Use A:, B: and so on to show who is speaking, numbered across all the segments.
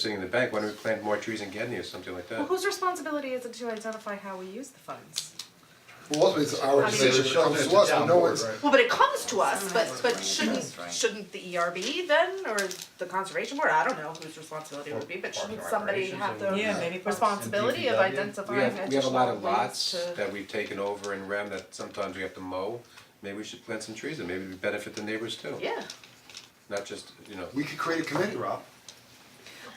A: sitting in the bank, why don't we plant more trees in Gedney or something like
B: Well,
A: that?
B: whose responsibility is it to identify how we use the funds?
C: Well, ultimately, it's our
B: mean-
C: decision, it comes to us, but no one's,
B: Well, but it comes to us, but
D: Right,
B: but
D: right,
B: shouldn't
D: that's right.
B: shouldn't the ERB then, or the conservation board, I don't know whose responsibility it would be, but shouldn't somebody have the
E: Yeah, maybe parks.
B: responsibility of
E: And DPW.
A: We
B: identifying
A: have, we have a lot
B: additional
A: of
B: ways
A: lots
B: to,
A: that we've taken over in Rem that sometimes we have to mow, maybe we should plant some trees and maybe we benefit the neighbors too,
B: yeah.
A: not just, you know.
C: we could create a committee, Rob.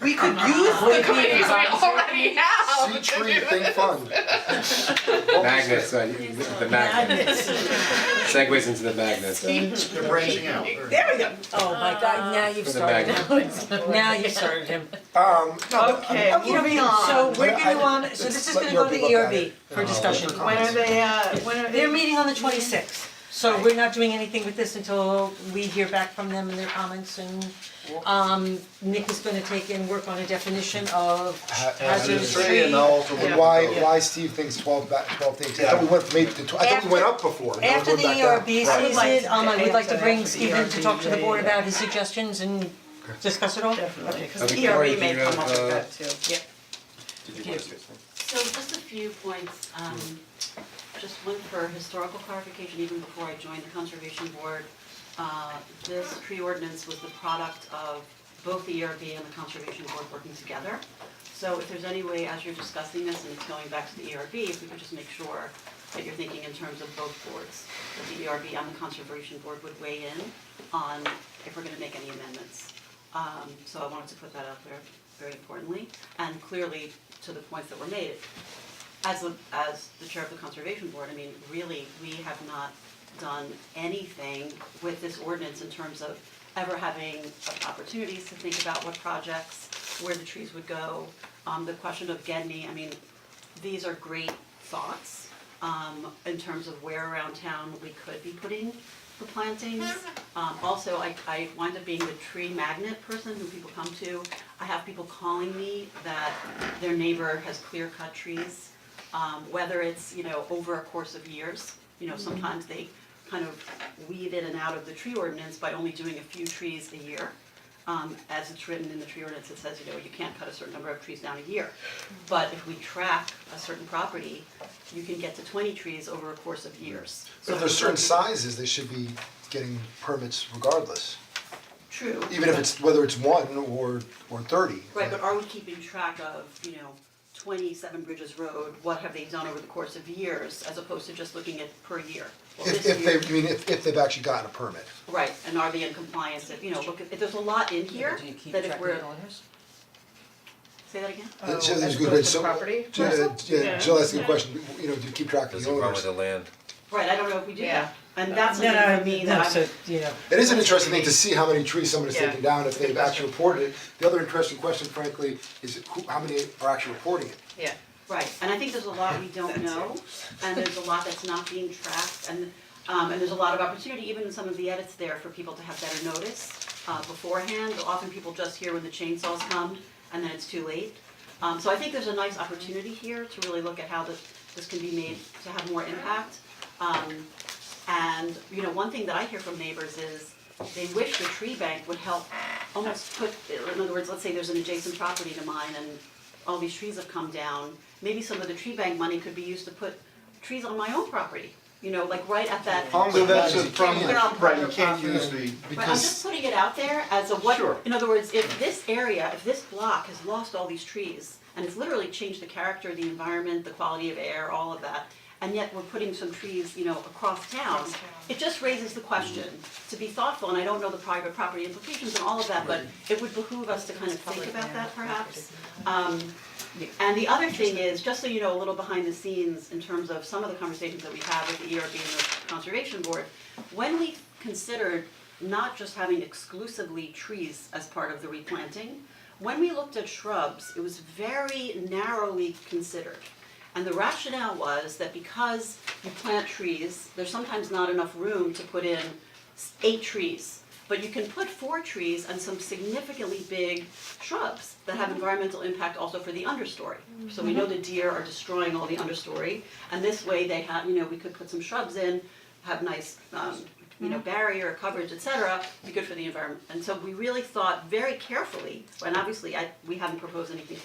B: We could use the committees we already
C: See
B: have.
C: tree, think fun.
A: Magnets, uh, you- the magnets. Segues into the magnets, uh,
D: They're branching out.
B: There we go.
E: Oh my god, now you've
A: for the
E: started
A: magnets.
E: him. Now you started him.
C: Um, no, but
B: Okay.
C: I'm-
B: Moving
E: Okay,
B: on.
E: so we're
C: But I-
E: gonna um, so this is
C: let
E: gonna go to
C: Yogi
E: the
C: look at
E: ERB
C: it. Uh,
E: for discussion.
B: When are they, uh, when are they?
E: They're meeting on the twenty sixth, so we're not doing anything with this until we hear back from them and their comments and um Nick is gonna take and work on a definition of hazardous tree.
D: and I'll also work
C: And
D: with
C: why,
D: Bill.
C: why Steve thinks twelve back, twelve days, I thought we went from eight to tw- I thought we went up before, now
E: After
C: we're
E: the E
C: going back
E: ERB
C: down.
B: I would like
E: season,
B: to
E: um I would like to
B: add to
E: bring
B: that,
E: Stephen to talk to the board
B: ERB,
E: about his suggestions and discuss it all.
B: Definitely,
A: Uh,
B: cause the
A: Victoria,
B: ERB
A: do
B: may
A: you have,
B: come up with
A: uh,
B: that too. Yeah.
A: Did you want to say something?
F: So just a few points, um, just one for historical clarification, even before I joined the conservation board. Uh, this tree ordinance was the product of both the ERB and the conservation board working together. So if there's any way, as you're discussing this and it's going back to the ERB, if we could just make sure that you're thinking in terms of both boards, that the ERB and the conservation board would weigh in on if we're gonna make any amendments. Um, so I wanted to put that out there very importantly, and clearly to the points that were made. As the, as the chair of the conservation board, I mean, really, we have not done anything with this ordinance in terms of ever having opportunities to think about what projects, where the trees would go. Um, the question of Gedney, I mean, these are great thoughts, um, in terms of where around town we could be putting the plantings. Um, also, I, I wind up being the tree magnet person who people come to. I have people calling me that their neighbor has clear cut trees, um, whether it's, you know, over a course of years. You know, sometimes they kind of weave in and out of the tree ordinance by only doing a few trees a year. Um, as it's written in the tree ordinance, it says, you know, you can't cut a certain number of trees down a year. But if we track a certain property, you can get to twenty trees over a course of years.
C: But if
F: So-
C: there's certain sizes, they should be getting permits regardless,
F: True.
C: even if it's, whether it's one or, or thirty.
F: Right, but are we keeping track of, you know, twenty-seven Bridges Road, what have they done over the course of years, as opposed to just looking at per year? Well,
C: If,
F: this
C: if
F: year-
C: they, I mean, if, if they've actually gotten a permit.
F: Right, and are they in compliance, if, you know, look, if, there's a lot in here,
E: Do you keep
F: that if
E: track of
F: we're,
E: the owners?
F: say that again?
C: Uh, so there's
B: Oh, as
C: good-
B: opposed to
C: so-
B: property?
C: Jill-
B: Yeah.
C: Yeah, Jill asked a good question, you know, do you keep track of the owners?
A: land?
F: Right, I don't know if we do
B: Yeah.
F: that, and that's
E: No,
F: something
E: no,
F: for me
E: no,
F: that
E: so,
F: I'm,
E: you know,
C: It is an interesting thing to see how many trees somebody's
B: Yeah.
C: taken down if they've actually reported it. The other interesting question frankly is who, how many are actually reporting it?
B: Yeah.
F: right, and I think there's a lot we don't know, and there's a lot that's not being tracked, and, um, and there's a lot of opportunity, even in some of the edits there, for people to have better notice, uh, beforehand, often people just hear when the chainsaws come, and then it's too late. Um, so I think there's a nice opportunity here to really look at how this, this can be made to have more impact. Um, and, you know, one thing that I hear from neighbors is they wish the tree bank would help almost put, in other words, let's say there's an adjacent property to mine and all these trees have come down. Maybe some of the tree bank money could be used to put trees on my own property, you know, like right at that.
C: So that's a
F: problem.
D: Right, you can't use the,
F: But I'm just
D: because
F: putting it out there as a what,
D: Sure.
F: in other words, if this area, if this block has lost all these trees, and it's literally changed the character, the environment, the quality of air, all of that, and yet we're putting some trees, you know, across town, it just raises the question to be thoughtful, and I don't know the private property implications and all of that, but it would behoove us to kind of think about that perhaps. Um, and the other thing is, just so you know, a little behind the scenes in terms of some of the conversations that we've had with the ERB and the Conservation Board, when we considered not just having exclusively trees as part of the replanting, when we looked at shrubs, it was very narrowly considered. And the rationale was that because you plant trees, there's sometimes not enough room to put in s- eight trees. But you can put four trees and some significantly big shrubs that have environmental impact also for the understory. So we know the deer are destroying all the understory, and this way they have, you know, we could put some shrubs in, have nice, um, you know, barrier, coverage, et cetera, be good for the environment. And so we really thought very carefully, and obviously I, we haven't proposed anything